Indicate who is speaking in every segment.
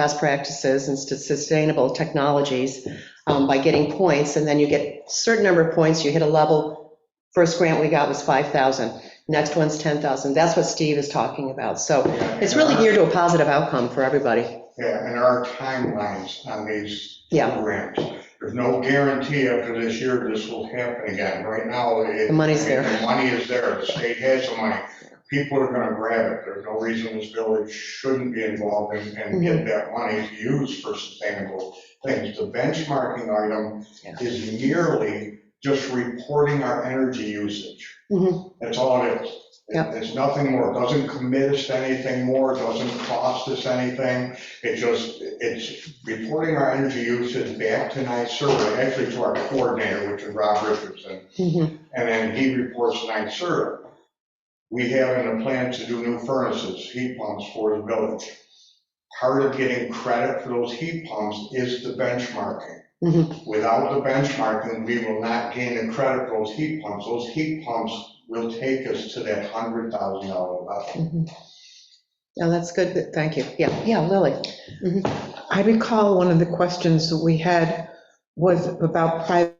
Speaker 1: best practices and sustainable technologies um, by getting points, and then you get certain number of points, you hit a level. First grant we got was 5,000, next one's 10,000. That's what Steve is talking about. So it's really geared to a positive outcome for everybody.
Speaker 2: Uh, Yeah, and there are timelines on these
Speaker 1: Yeah.
Speaker 2: programs. There's no guarantee after this year this will happen again. Right now, it.
Speaker 1: The money's
Speaker 2: I mean,
Speaker 1: there.
Speaker 2: The money is there, the state has the money. People are gonna grab it. There's no reason this village shouldn't be involved and, and
Speaker 1: Mm-hmm.
Speaker 2: get that money to use for sustainable things. The benchmarking item
Speaker 1: Yeah.
Speaker 2: is merely just reporting our energy usage.
Speaker 1: Mhm.
Speaker 2: That's all it is.
Speaker 1: Yep.
Speaker 2: It's nothing more, It doesn't commit us to anything more, It doesn't cost us anything. It just, it's reporting our energy usage back to NICE survey, actually to our coordinator, which is Rob Richardson,
Speaker 3: Mm-hmm.
Speaker 1: Mhm.
Speaker 2: and then he reports NICE survey. We have in the plan to do new furnaces, heat pumps for the village. Part of getting credit for those heat pumps is the benchmarking.
Speaker 1: Mhm.
Speaker 2: Without the benchmarking, we will not gain the credit for those heat pumps. Those heat pumps will take us to that hundred thousand dollar level.
Speaker 1: Mhm. Yeah,
Speaker 3: Oh,
Speaker 1: that's good. Thank you. Yeah, yeah, Lily.
Speaker 3: I recall one of the questions we had was about private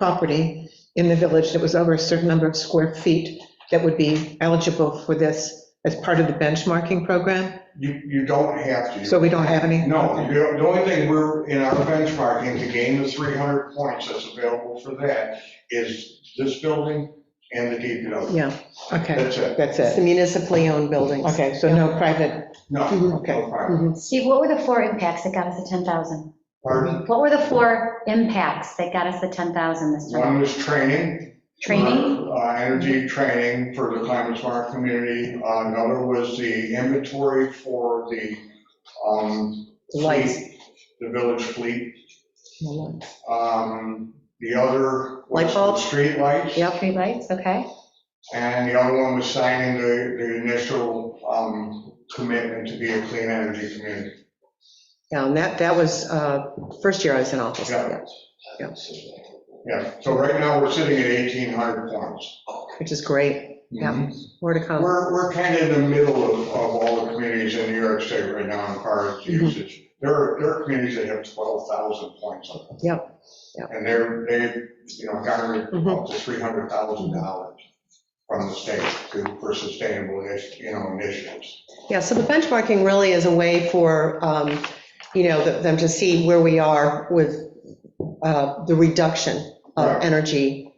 Speaker 3: property in the village that was over a certain number of square feet that would be eligible for this as part of the benchmarking program,
Speaker 2: You, you don't have to.
Speaker 3: so we don't have any?
Speaker 2: No, the the only thing we're, in our benchmarking, to gain the three hundred points that's available for that is this building and the DPW.
Speaker 3: Yeah, okay,
Speaker 2: That's it.
Speaker 3: that's
Speaker 1: It's the
Speaker 3: it.
Speaker 1: municipally owned buildings.
Speaker 3: Okay, so no private,
Speaker 2: No,
Speaker 1: Mhm.
Speaker 2: no
Speaker 3: Okay.
Speaker 2: problem.
Speaker 4: Steve, what were the four impacts that got us the 10,000?
Speaker 2: Pardon?
Speaker 4: What were the four impacts that got us the 10,000 this
Speaker 2: One
Speaker 4: time?
Speaker 2: was training.
Speaker 4: Training?
Speaker 2: Uh, Energy training for the climate smart community. Uh, Another was the inventory for the, um,
Speaker 1: Lights.
Speaker 2: fleet, the village fleet.
Speaker 3: no,
Speaker 2: Um, The other
Speaker 1: Light
Speaker 2: was the
Speaker 1: bulbs?
Speaker 2: streetlights.
Speaker 1: Yep.
Speaker 4: Streetlights, okay.
Speaker 2: And the other one was signing the, the initial, um, commitment to be a clean energy community.
Speaker 1: Yeah, and that, that was, uh, first year I was in office.
Speaker 2: Yeah.
Speaker 1: Yeah.
Speaker 2: Yeah, so right now we're sitting at 1,800 points.
Speaker 1: Which is great. Yeah.
Speaker 2: Mhm.
Speaker 1: More to come.
Speaker 2: We're, we're kind of in the middle of, of all the communities in New York State right now in far as
Speaker 1: Mhm.
Speaker 2: usage. There are, there are communities that have 12,000 points on them.
Speaker 1: Yep, yep.
Speaker 2: And they're, they, you know, garnered
Speaker 1: Mhm.
Speaker 2: up to $300,000 from the state to- for sustainable, you know, initiatives.
Speaker 1: Yeah, so the benchmarking really is a way for, um, you know, th- them to see where we are with uh, the reduction of
Speaker 2: Right.
Speaker 1: energy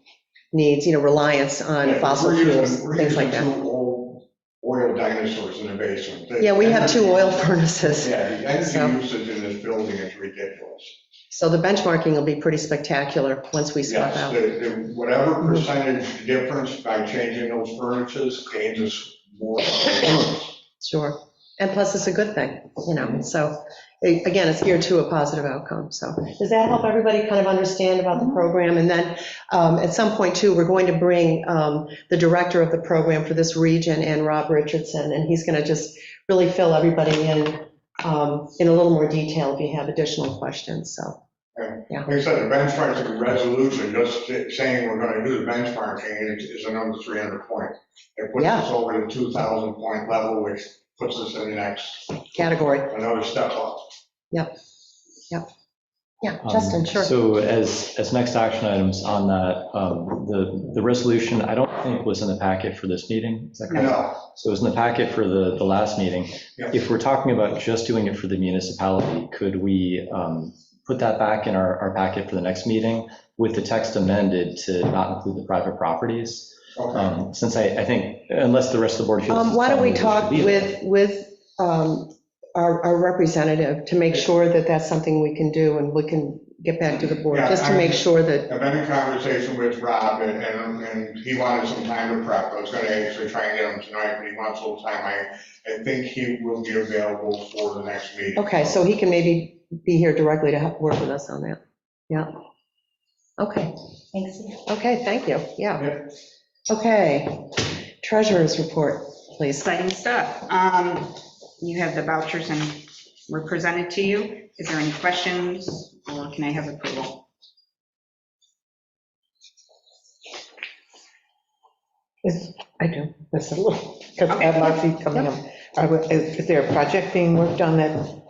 Speaker 1: needs, you know, reliance on
Speaker 2: Yeah,
Speaker 1: fossil
Speaker 2: we're using-
Speaker 1: fuels,
Speaker 2: we're
Speaker 1: things like
Speaker 2: using
Speaker 1: that.
Speaker 2: two old Oil dinosaurs in the basement. The
Speaker 1: Yeah, we have two oil
Speaker 2: energy-
Speaker 1: furnaces,
Speaker 2: Yeah, the
Speaker 1: so-
Speaker 2: energy usage in this building is ridiculous.
Speaker 1: so the benchmarking will be pretty spectacular once we swap
Speaker 2: Yes,
Speaker 1: out.
Speaker 2: the- the- whatever
Speaker 1: mm-hmm.
Speaker 2: percentage difference by changing those furnaces gains us more.
Speaker 1: Sure. And plus, it's a good thing, you know, so, a- again, it's geared to a positive outcome, so. Does that help everybody kind of understand about the program? And then, um, at some point too, we're going to bring um, the director of the program for this region and Rob Richardson, and he's going to just really fill everybody in, um, in a little more detail if you have additional questions, so.
Speaker 2: Like I said, the benchmarking resolution, just saying we're going to do the benchmarking is- is another 300 point. It puts
Speaker 1: Yeah.
Speaker 2: us over the 2,000 point level, which puts us in the next,
Speaker 1: Category,
Speaker 2: another step up.
Speaker 1: yeah,
Speaker 5: Um,
Speaker 1: Justin, sure.
Speaker 5: So as, as next action items on that, um, the, the resolution, I don't think was in the packet for this meeting. Is that correct?
Speaker 2: No,
Speaker 5: So it was in the packet for the, the last meeting.
Speaker 2: Yeah.
Speaker 5: If we're talking about just doing it for the municipality, could we um, put that back in our, our packet for the next meeting with the text amended to not include the private properties?
Speaker 2: okay.
Speaker 5: Um, Since I, I think, unless the rest of the board feels.
Speaker 1: Um, Why don't we
Speaker 5: strongly
Speaker 1: talk
Speaker 5: it should be there.
Speaker 1: with, with um, our our representative to make sure that that's something we can do and we can get back to the board,
Speaker 2: Yeah,
Speaker 1: just to
Speaker 2: I-
Speaker 1: make sure that,
Speaker 2: I've been in conversation with Rob and, and and he wanted some time to prep. I was going to actually try and get him tonight, but he wants a little time. I, I think he will be available for the next meeting.
Speaker 1: okay, so he can maybe be here directly to help work with us on that. Yeah. Okay,
Speaker 4: Thanks, Steve.
Speaker 1: okay, thank you, yeah.
Speaker 2: Yeah.
Speaker 1: Okay, treasurer's report, please.
Speaker 6: exciting stuff. Um, You have the vouchers and were presented to you. Is there any questions or can I have approval?
Speaker 3: I do, that's a little, because I have my feet coming up. Are we- Is is there a project being worked on that